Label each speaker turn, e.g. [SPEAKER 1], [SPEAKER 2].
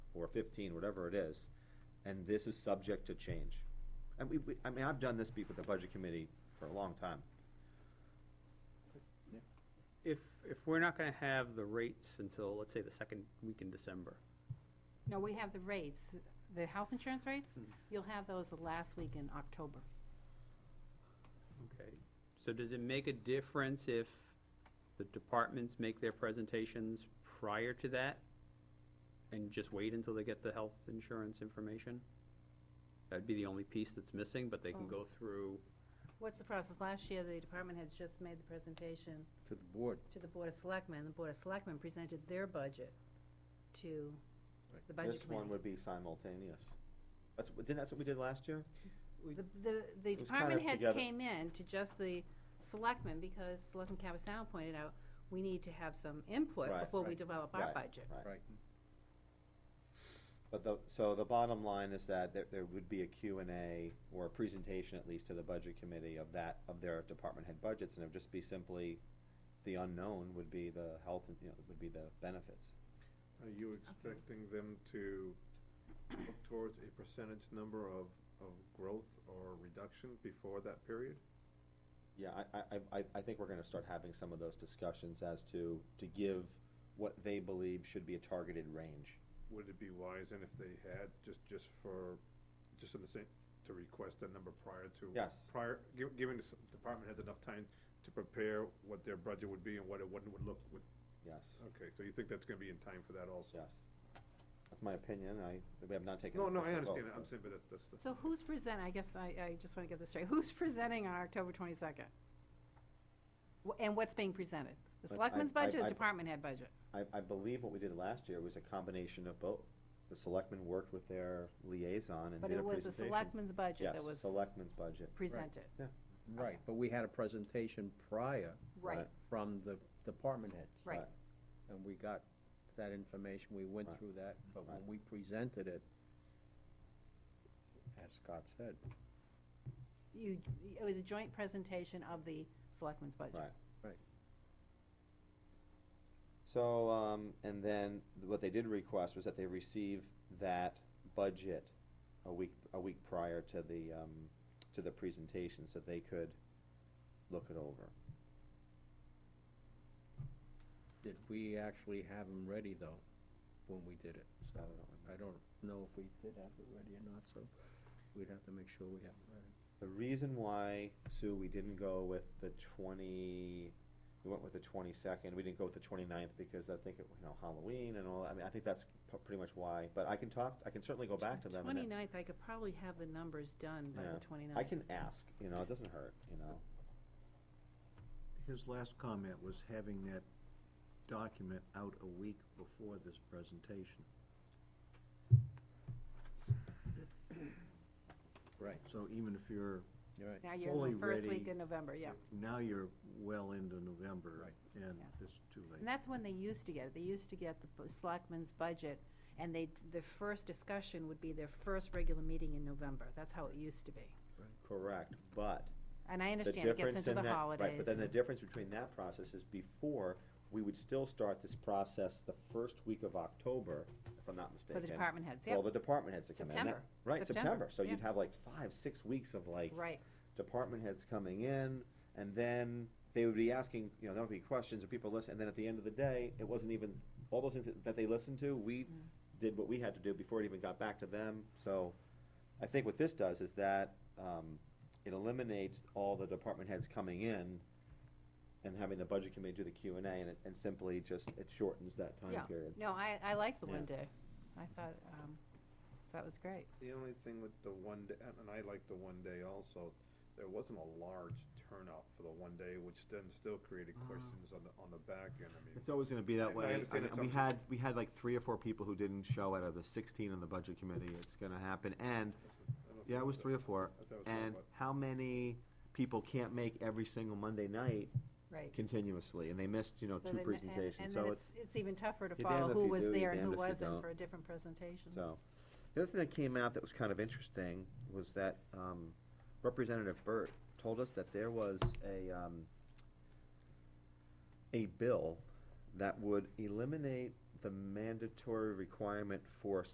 [SPEAKER 1] or fifteen, whatever it is, and this is subject to change. And we, we, I mean, I've done this be- with the budget committee for a long time.
[SPEAKER 2] If, if we're not gonna have the rates until, let's say, the second week in December,
[SPEAKER 3] No, we have the rates, the health insurance rates,
[SPEAKER 1] Hmm.
[SPEAKER 2] Mm.
[SPEAKER 3] you'll have those the last week in October.
[SPEAKER 2] okay? So does it make a difference if the departments make their presentations prior to that? And just wait until they get the health insurance information? That'd be the only piece that's missing, but they can
[SPEAKER 3] Oh.
[SPEAKER 2] go through,
[SPEAKER 3] What's the process? Last year, the department heads just made the presentation
[SPEAKER 4] to the board.
[SPEAKER 3] to the Board of Selectmen, the Board of Selectmen presented their budget to the budget
[SPEAKER 1] This one
[SPEAKER 3] committee.
[SPEAKER 1] would be simultaneous. That's, didn't that's what we did last year?
[SPEAKER 3] The, the, the
[SPEAKER 1] It was
[SPEAKER 3] department
[SPEAKER 1] kinda
[SPEAKER 3] heads
[SPEAKER 1] together.
[SPEAKER 3] came in to just the selectmen, because Selectman Cabasal pointed out, we need to have some input
[SPEAKER 1] Right,
[SPEAKER 3] before we
[SPEAKER 4] right,
[SPEAKER 3] develop our
[SPEAKER 1] right.
[SPEAKER 3] budget.
[SPEAKER 4] Right.
[SPEAKER 1] But the, so the bottom line is that there, there would be a Q and A, or a presentation at least to the budget committee of that, of their department head budgets, and it would just be simply, the unknown would be the health, and, you know, would be the benefits.
[SPEAKER 5] Are you expecting them to look towards a percentage number of, of growth or reduction before that period?
[SPEAKER 1] Yeah, I, I- I, I, I think we're gonna start having some of those discussions as to, to give what they believe should be a targeted range.
[SPEAKER 5] Would it be wise, and if they had, just, just for, just in the same, to request a number prior to?
[SPEAKER 1] Yes.
[SPEAKER 5] Prior, gi- giving the s- department heads enough time to prepare what their budget would be and what it would, would look with,
[SPEAKER 1] Yes,
[SPEAKER 5] okay, so you think that's gonna be in time for that also?
[SPEAKER 1] yes. That's my opinion, I, we have not taken.
[SPEAKER 5] No,
[SPEAKER 1] an
[SPEAKER 5] no, I
[SPEAKER 1] official
[SPEAKER 5] understand,
[SPEAKER 1] vote,
[SPEAKER 5] it. I'm saying, but that's, that's. the-
[SPEAKER 3] So who's present, I guess I, I just wanna get this straight, who's presenting on October twenty-second? And what's being presented? The
[SPEAKER 1] But I-
[SPEAKER 3] selectmen's budget,
[SPEAKER 1] I-
[SPEAKER 3] or
[SPEAKER 1] I-
[SPEAKER 3] the department head budget?
[SPEAKER 1] I, I believe what we did last year was a combination of both. The selectmen worked with their liaison and
[SPEAKER 3] But
[SPEAKER 1] did a
[SPEAKER 3] it was the
[SPEAKER 1] presentation.
[SPEAKER 3] selectmen's budget that was
[SPEAKER 1] Yes, selectmen's budget.
[SPEAKER 3] presented.
[SPEAKER 4] Right, but we had a presentation prior
[SPEAKER 1] Right.
[SPEAKER 4] from the department heads.
[SPEAKER 3] Right.
[SPEAKER 1] Right.
[SPEAKER 4] And we got that information, we went
[SPEAKER 1] Right.
[SPEAKER 4] through that, but when
[SPEAKER 1] Right.
[SPEAKER 4] we presented it, as Scott said,
[SPEAKER 3] You, it was a joint presentation of the selectmen's budget.
[SPEAKER 1] Right.
[SPEAKER 4] Right.
[SPEAKER 1] So, um, and then what they did request was that they receive that budget a week, a week prior to the, um, to the presentation, so they could look it over.
[SPEAKER 4] did we actually have them ready though, when we did it?
[SPEAKER 1] I
[SPEAKER 4] So,
[SPEAKER 1] don't remember.
[SPEAKER 4] I don't know if we did have it ready or not, so we'd have to make sure we have it ready.
[SPEAKER 1] The reason why, Sue, we didn't go with the twenty, we went with the twenty-second, we didn't go with the 29th because I think, it you know, Halloween and all, I mean, I think that's p- pretty much why, but I can talk, I can certainly go back to them. and-
[SPEAKER 3] Twenty-ninth, I could probably have the numbers done by
[SPEAKER 1] Yeah.
[SPEAKER 3] the
[SPEAKER 1] I
[SPEAKER 3] twenty-ninth.
[SPEAKER 1] can ask, you know, it doesn't hurt, you know.
[SPEAKER 6] His last comment was having that document out a week before this presentation.
[SPEAKER 4] Right,
[SPEAKER 6] So even if you're,
[SPEAKER 4] you're right.
[SPEAKER 3] Now you're in
[SPEAKER 6] fully
[SPEAKER 3] the first week
[SPEAKER 6] ready.
[SPEAKER 3] in November, yeah.
[SPEAKER 6] now you're well into November.
[SPEAKER 4] Right.
[SPEAKER 6] And
[SPEAKER 3] Yeah.
[SPEAKER 6] it's too
[SPEAKER 3] And
[SPEAKER 6] late.
[SPEAKER 3] that's when they used to get it. They used to get the bu- selectmen's budget, and they, their first discussion would be their first regular meeting in November. That's how it used to be.
[SPEAKER 1] Correct, but
[SPEAKER 3] And I
[SPEAKER 1] the
[SPEAKER 3] understand it gets
[SPEAKER 1] difference
[SPEAKER 3] into
[SPEAKER 1] in
[SPEAKER 3] the
[SPEAKER 1] that, right,
[SPEAKER 3] holidays.
[SPEAKER 1] but then the difference between that process is before, we would still start this process the first week of October, if I'm not
[SPEAKER 3] For
[SPEAKER 1] mistaken.
[SPEAKER 3] the department heads,
[SPEAKER 1] For all
[SPEAKER 3] yep,
[SPEAKER 1] the department heads to come in. That-
[SPEAKER 3] September,
[SPEAKER 1] Right,
[SPEAKER 3] September,
[SPEAKER 1] September, so you'd
[SPEAKER 3] yeah.
[SPEAKER 1] have like five, six weeks of like
[SPEAKER 3] right.
[SPEAKER 1] department heads coming in, and then they would be asking, you know, there would be questions, and people listen, and then at the end of the day, it wasn't even, all those things that- that they listened to, we did what we had to do before it even got back to them, so I think what this does is that, um, it eliminates all the department heads coming in and having the budget committee do the Q and A, and it, and simply just, it shortens that
[SPEAKER 3] Yeah.
[SPEAKER 1] time period.
[SPEAKER 3] No, I, I like the
[SPEAKER 1] Yeah.
[SPEAKER 3] one day. I thought, um, that was great.
[SPEAKER 5] The only thing with the one day, and and I like the one day also, there wasn't a large turnout for the one day, which then still created
[SPEAKER 1] Ah.
[SPEAKER 5] questions on the, on the back end, I mean.
[SPEAKER 1] It's always gonna be
[SPEAKER 5] I- I
[SPEAKER 1] that way. I
[SPEAKER 5] understand
[SPEAKER 1] mean,
[SPEAKER 5] it's
[SPEAKER 1] We
[SPEAKER 5] up to-
[SPEAKER 1] had, we had like three or four people who didn't show out of the sixteen on the budget committee, it's gonna happen, and
[SPEAKER 5] I don't
[SPEAKER 1] Yeah, it
[SPEAKER 5] think
[SPEAKER 1] was three or four.
[SPEAKER 5] I thought it was four,
[SPEAKER 1] And
[SPEAKER 5] but-
[SPEAKER 1] how many people can't make every single Monday night
[SPEAKER 3] Right.
[SPEAKER 1] continuously, and they missed, you know,
[SPEAKER 3] So
[SPEAKER 1] two
[SPEAKER 3] then- and-
[SPEAKER 1] presentations,
[SPEAKER 3] And
[SPEAKER 1] so
[SPEAKER 3] then
[SPEAKER 1] it's,
[SPEAKER 3] it's, it's even tougher to
[SPEAKER 1] you're damned
[SPEAKER 3] follow
[SPEAKER 1] if
[SPEAKER 3] who
[SPEAKER 1] you
[SPEAKER 3] was
[SPEAKER 1] do, you're
[SPEAKER 3] there and who
[SPEAKER 1] damned if you
[SPEAKER 3] wasn't
[SPEAKER 1] don't.
[SPEAKER 3] for a different presentations.
[SPEAKER 1] so. The other thing that came out that was kind of interesting was that, um, Representative Burt told us that there was a, um, a bill that would eliminate the mandatory requirement for